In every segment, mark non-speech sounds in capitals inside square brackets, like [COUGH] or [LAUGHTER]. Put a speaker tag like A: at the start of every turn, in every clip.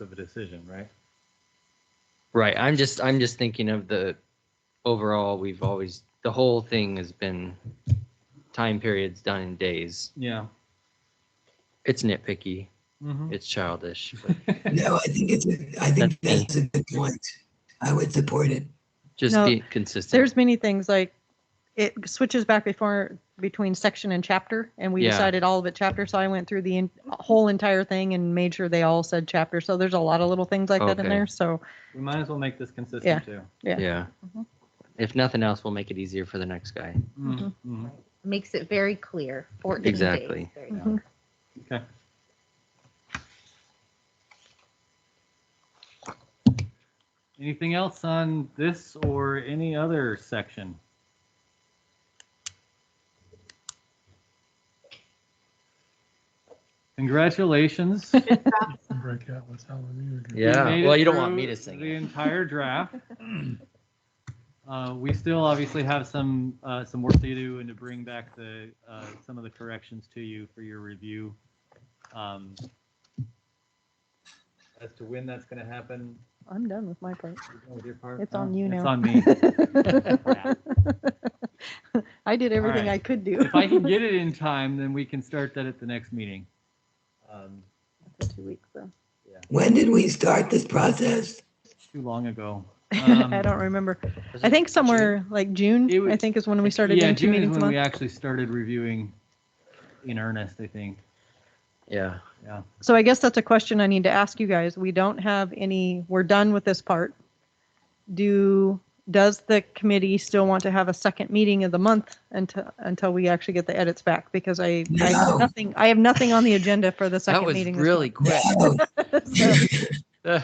A: of a decision, right?
B: Right. I'm just I'm just thinking of the overall we've always the whole thing has been time periods done in days.
A: Yeah.
B: It's nitpicky.
A: Mm-hmm.
B: It's childish. but
C: No, I think it's, a- I think
B: That's me.
C: that's a good point. I would support it.
B: Just
D: No,
B: be consistent.
D: There's many things like it switches back before between section and chapter, and we
B: Yeah.
D: decided all of it chapter. So I went through the en- whole entire thing and made sure they all said chapter. So there's a lot of little things like that
B: Okay.
D: in there. So
A: We might as well make this consistent
D: Yeah.
A: too.
D: yeah.
B: yeah.
D: Mhm.
B: If nothing else, we'll make it easier for the next guy.
A: Mhm. Mhm.
E: Makes it very clear. 14 days.
B: Exactly.
E: There you go.
D: Mhm.
A: Mm-hmm. Okay. Anything else on this or any other section? Congratulations. You
F: break out with Hallelujah. again.
B: Yeah.
A: made
B: Well,
A: it
B: you don't want
A: through
B: me to sing
A: The
B: it.
A: entire
D: [LAUGHS]
A: draft. Uh, We still obviously have some, uh, some work to do and to bring back the, uh, some of the corrections to you for your review. Um, As to when that's going to happen,
D: [LAUGHS] I'm done with my part.
A: you're done with your part?
D: It's
A: Oh,
D: on you now.
A: It's on me. Crap.
D: [LAUGHS] I did everything
A: right.
D: I could do.
A: If I
D: [LAUGHS]
A: can get it in time, then we can start that at the next meeting. Um,
D: For two weeks, though.
C: When did we start this process?
A: Too long ago.
D: [LAUGHS] [LAUGHS] I
A: Um,
D: don't remember.
B: Was
D: I
B: it
D: think somewhere like
A: It
D: June,
A: was-
D: I think is when we started
A: Yeah,
D: doing two
A: June is
D: meetings a
A: when we
D: month.
A: actually started reviewing in earnest, I think.
B: Yeah.
A: Yeah.
D: So I guess that's a question I need to ask you guys. We don't have any, we're done with this part. Do, does the committee still want to have a second meeting of the month until, until we actually get the edits back? Because I, I
C: No.
D: have nothing, I have nothing on the agenda for the
B: That
D: second
B: was
D: meeting. this
B: really
D: [LAUGHS]
B: quick.
C: No.
D: month. So-
B: Ugh.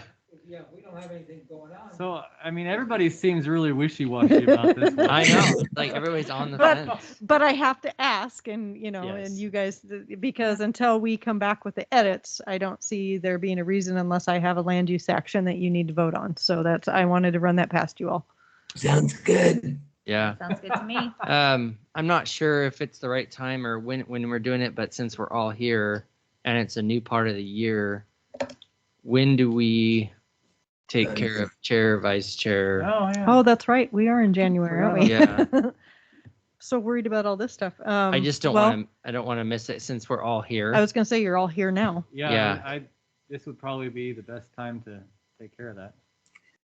C: Yeah, we don't have anything going on.
A: Uh, So, I mean, everybody seems really wishy-washy about this. one.
B: [LAUGHS] I know. Like everybody's on the
D: But-
B: fence.
D: But I have to ask and, you know, and
B: Yes.
D: you guys, th- because until we come back with the edits, I don't see there being a reason unless I have a land use action that you need to vote on. So that's, I wanted to run that past you all.
C: Sounds good.
B: Yeah.
E: Sounds good to me.
B: Um, I'm not sure if it's the right time or when when we're doing it, but since we're all here and it's a new part of the year, when do we
F: Uh,
B: take care of chair, vice
F: [LAUGHS]
B: chair?
A: Oh, yeah.
D: Oh, that's right. We are in January, aren't we?
B: Yeah,
D: So worried about all this stuff. Um,
B: I just don't
D: well,
B: want to. I don't want to miss it since we're all here.
D: I was gonna say you're all here now.
A: Yeah,
B: Yeah.
A: I, I- this would probably be the best time to take care of that.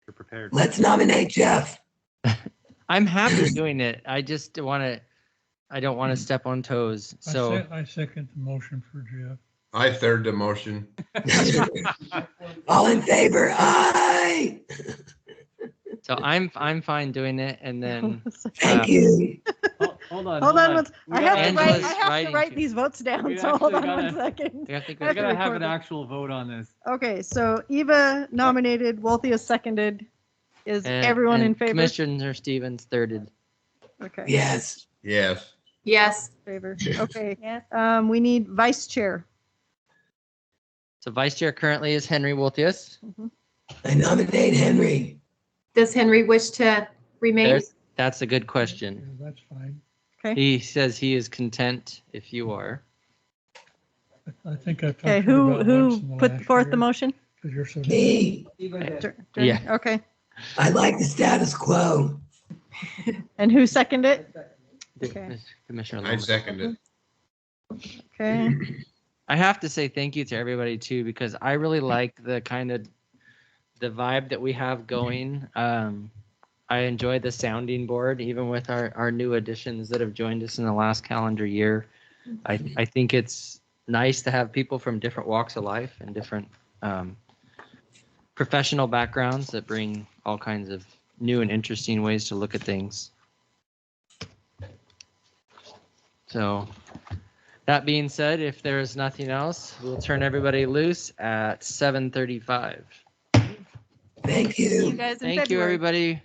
A: You're prepared.
C: Let's nominate [LAUGHS] Jeff.
B: [LAUGHS] I'm happy
F: [CLEARS THROAT]
B: doing it. I just want to. I don't want to step on toes.
F: Mm. I
B: So
F: sec- I second the motion for Jeff.
G: I third the motion.
C: All in favor? Aye.
B: so I'm I'm fine doing it. And
D: [LAUGHS]
B: then
C: [LAUGHS] Thank you.
A: Hold hold on.
D: Hold on, once-
A: We
D: I have to
A: gotta-
D: write,
B: Angela's
D: I have to
B: writing
D: write
B: to-
D: these votes down,
A: We
D: so hold on
A: actually
D: one
A: gotta-
D: second.
B: I think
A: We
B: we're
A: gotta have
D: record
A: an
D: it.
A: actual vote on this.
D: Okay, so Eva nominated, Walthea seconded. Is
B: and-
D: everyone
B: and
D: in favor?
B: Commissioner Stevens thirded.
D: Okay,
C: Yes.
G: Yes.
H: Yes.
D: favor. Okay,
E: Yes.
D: um, we need vice chair.
B: So vice chair currently is Henry Wolthius.
D: Mm-hmm.
C: I nominate Henry.
H: Does Henry wish to remain?
B: There's- That's a good question.
F: Yeah, That's fine.
D: Okay,
B: He says he is content if you are.
F: I- I think I talked to
D: okay,
F: you
D: who,
F: about once
D: who
F: in the
D: put
F: last
D: forth the
F: year,
D: motion?
F: 'cause you're so-
C: Me.
D: Dur- dur-
B: Yeah.
D: Okay,
C: I like the status quo.
D: and who seconded it? Okay.
B: Commissioner
G: I
B: Lomas.
G: second it.
D: Okay,
B: I have to say thank you to everybody too because I really like the kind of the vibe that we have going. Um, I enjoy the sounding board, even with our, our new additions that have joined us in the last calendar year. I, I think it's nice to have people from different walks of life and different um, professional backgrounds that bring all kinds of new and interesting ways to look at things. So, that being said, if there is nothing else, we'll turn everybody loose at 7:35.
C: Thank
D: you
C: you.
D: guys in
B: Thank you,
D: February.
B: everybody.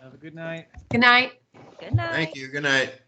A: Have a good night.
H: Good night.
E: Good night.
G: Thank you. Good night.